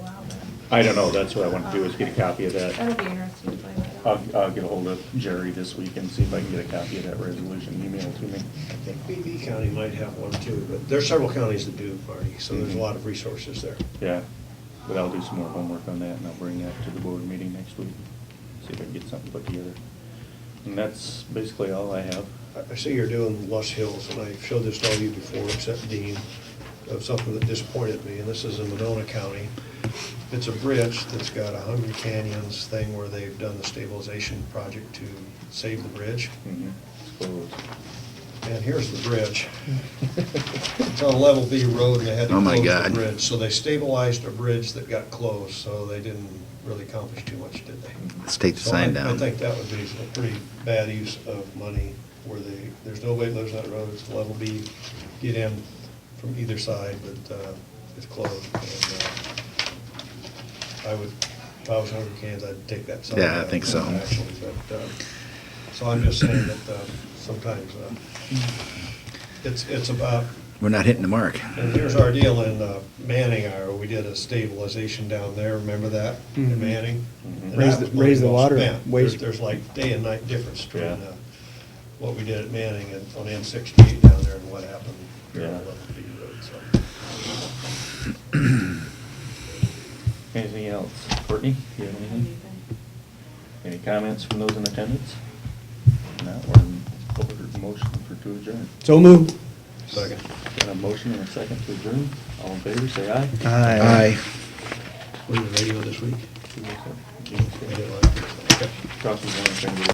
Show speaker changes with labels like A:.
A: I don't know, that's what I want to do, is get a copy of that.
B: That'll be interesting to play that out.
A: I'll, I'll get ahold of Jerry this week and see if I can get a copy of that resolution emailed to me.
C: I think BB County might have one too, but there are several counties that do, Marty, so there's a lot of resources there.
A: Yeah, but I'll do some more homework on that and I'll bring that to the board meeting next week. See if I can get something put together. And that's basically all I have.
C: I- I see you're doing Los Hills, and I showed this to all of you before, except Dean, of something that disappointed me, and this is in Monona County. It's a bridge that's got a Hungry Canyons thing where they've done the stabilization project to save the bridge.
A: Mhm. It's closed.
C: And here's the bridge. It's on a level B road, and they had to
D: Oh,
C: close
D: my
C: the
D: God.
C: bridge. So they stabilized a bridge that got closed, so they didn't really accomplish too much, did they?
D: Let's take the
C: So
D: sign
C: I- I
D: down.
C: think that would be a pretty bad use of money, where they, there's nobody that lives on that road, it's level B, get in from either side, but uh, it's closed. and, uh, I would, if I was Hungry Cans, I'd take that sign.
D: Yeah, I
C: down,
D: think so.
C: Actually, but, uh, so I'm just saying that uh, sometimes uh, it's, it's about
D: We're not hitting the mark.
C: and here's our deal in uh, Manning, Iowa, we did a stabilization down there, remember that, in
E: Mhm.
C: Manning?
A: Mhm.
C: And that
E: Raise the-
C: was money
E: raise the
C: well
E: water
C: spent.
E: waste-
C: There's- There's like day and night difference between
A: Yeah.
C: uh, what we did at Manning and on M sixty-eight down there and what happened here on
A: Yeah.
C: Level B Road, so.
A: Anything else? Courtney, do you have anything? Any comments from those in attendance? No, we're in order, motion for to adjourn.
E: So moved.
C: Second.
A: Got a motion and a second to adjourn. All in favor, say aye.
D: Aye.
C: Was the radio this week?
A: Two votes, aye.
C: I didn't like it. Okay.
A: Cross the line, finger.